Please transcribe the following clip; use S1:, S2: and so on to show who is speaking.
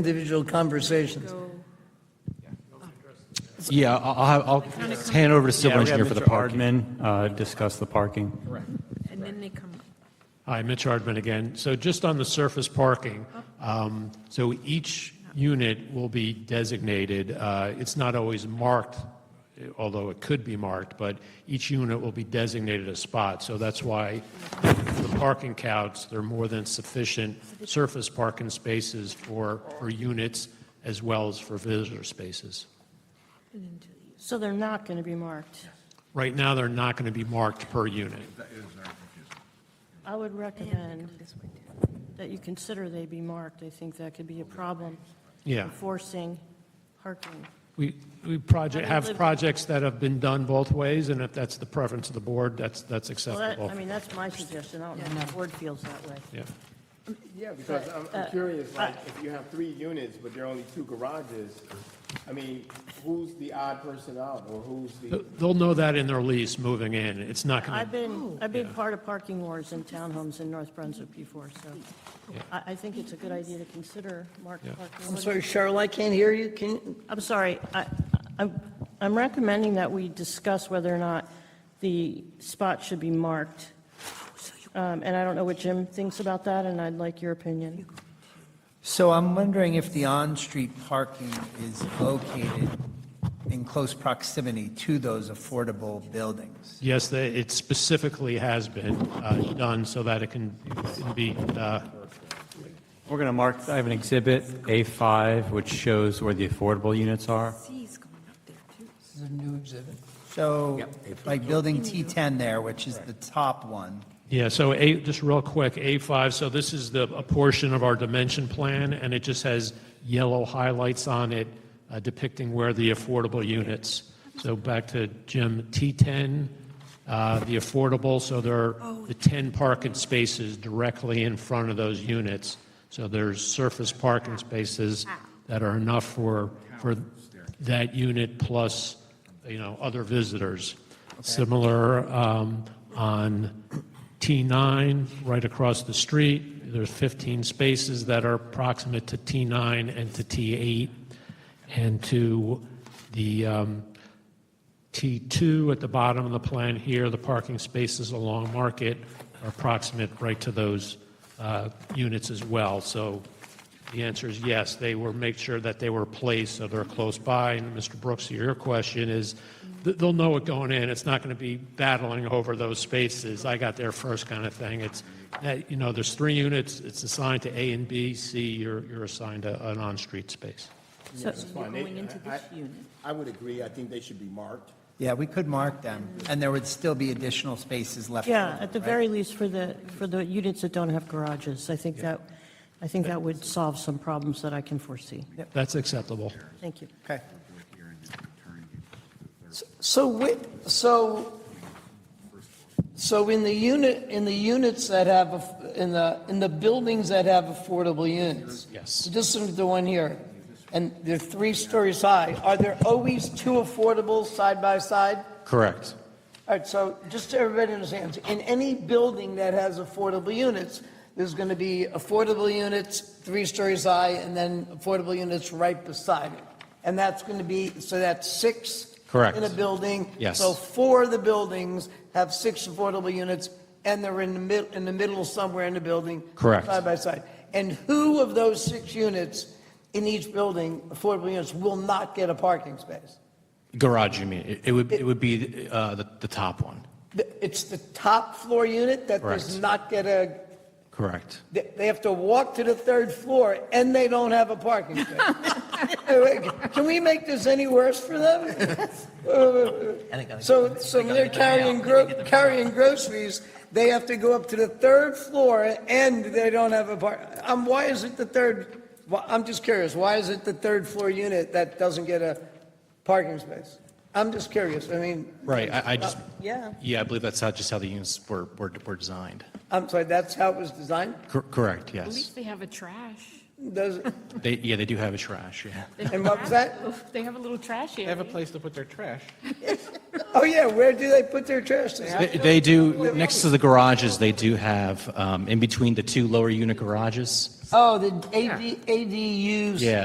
S1: individual conversations.
S2: Yeah, I'll- I'll, have- I'll hand over to civil engineer for the parking.
S3: uh, Discuss the parking.
S4: And then they come up.
S5: Hi, Mitch Hardman again. So just on the surface parking, um, so each unit will be designated, uh, it's not always marked, although it could be marked, but each unit will be designated a spot. So that's why the parking counts, there are more than sufficient surface parking spaces for, for units as well as for visitor spaces.
S6: So they're not going to be marked.
S5: Right now, they're not going to be marked per unit.
S6: I would recommend that you consider they be marked. I think that could be a problem.
S5: Yeah.
S6: Forcing parking.
S5: We, we project, have projects that have been done both ways, and if that's the preference of the board, that's, that's
S6: Well, that,
S5: acceptable.
S6: I mean, that's my suggestion. I don't know if the board feels that way.
S5: Yeah.
S7: Yeah, because I'm,
S4: Uh,
S7: I'm curious, like, if you have three units, but there are only two garages, I mean, who's the odd person out, or who's the?
S5: They'll know that in their lease moving in. It's not going
S6: I've
S5: to,
S6: been, I've been part of parking wars in townhomes in North Brunswick before, so I, I think it's a good idea to consider marked parking.
S1: I'm sorry, Cheryl, I can't hear you. Can,
S6: I'm sorry, I, I'm, I'm recommending that we discuss whether or not the spot should be marked. Um, and I don't know what Jim thinks about that, and I'd like your opinion.
S8: So I'm wondering if the on-street parking is located in close proximity to those affordable buildings?
S5: yes, they- it specifically has been uh, done so that it can can be, uh,
S3: We're going to mark, I have an exhibit, A5, which shows where the affordable units are.
S4: C's going up there too.
S1: this is a new exhibit.
S8: So, like building T10 there, which is the top one,
S5: yeah, so A, just real quick, A5, so this is the, a portion of our dimension plan, and it just has yellow highlights on it uh, depicting where the affordable units. So back to Jim, T10, uh, the affordable, so there are the 10 parking spaces directly in front of those units. So there's surface parking spaces that are enough for, for that unit plus, you know, other visitors. Similar um, on T9, right across the street, there's 15 spaces that are proximate to T9 and to T8 and to the um, T2 at the bottom of the plan here, the parking spaces along Market are proximate right to those uh, units as well. So the answer is yes, they were, make sure that they were placed so they're close by. And Mr. Brooks, your question is, th- they'll know it going in, it's not going to be battling over those spaces, I got there first kind of thing. It's, that, you know, there's three units, it's assigned to A and B, C, you're you're assigned a- an on-street space.
S4: So you're
S7: fine. They-
S4: going into this
S7: I-
S4: unit.
S7: I would agree, I think they should be marked.
S8: yeah, we could mark them, and there would still be additional spaces left.
S6: Yeah,
S8: over,
S6: at the
S8: right?
S6: very least for the, for the units that don't have garages, I think that, I think that would solve some problems that I can foresee.
S5: That's acceptable.
S6: Thank you.
S8: Okay.
S1: So, wi- so, so in the unit, in the units that have, aff- in the, in the buildings that have affordable units?
S5: Yes.
S1: Just look at the one here, and they're three stories high. Are there always two affordables side by side?
S2: Correct.
S1: All right, so just so everybody understands, in any building that has affordable units, there's going to be affordable units three stories high and then affordable units right beside it. And that's going to be, so that's six.
S2: Correct.
S1: In a building.
S2: Yes.
S1: So four of the buildings have six affordable units and they're in the mid, in the middle somewhere in the building.
S2: Correct.
S1: Side by side. And who of those six units in each building, affordable units, will not get a parking space?
S2: Garage, you mean? It- It would, it would be uh, the, the top one.
S1: The- It's the top floor unit that does
S2: Correct.
S1: not get a,
S2: Correct.
S1: they they have to walk to the third floor and they don't have a parking space. Hey, wait, Can we make this any worse for them? So, so when they're carrying, gro- carrying groceries, they have to go up to the third floor and they don't have a park. Um, why is it the third, why- I'm just curious, why is it the third floor unit that doesn't get a parking space? I'm just curious, I mean.
S2: Right, I, I just,
S1: Yeah.
S2: yeah, I believe that's how, just how the units were, were, were designed.
S1: I'm sorry, that's how it was designed?
S2: Cor- Correct,
S4: At
S2: yes.
S4: least they have a trash.
S1: Does,
S2: They, yeah, they do have a trash, yeah.
S4: They have
S1: And
S4: a
S1: what was
S4: trash- They have a little trash
S9: They have a
S4: area.
S9: place to put their trash.
S1: Oh, yeah, where do they put their trash? They have
S2: They- They do, next to the garages, they do have, um, in between the two lower unit garages.
S1: Oh, the AD, ADUs.
S2: Yeah,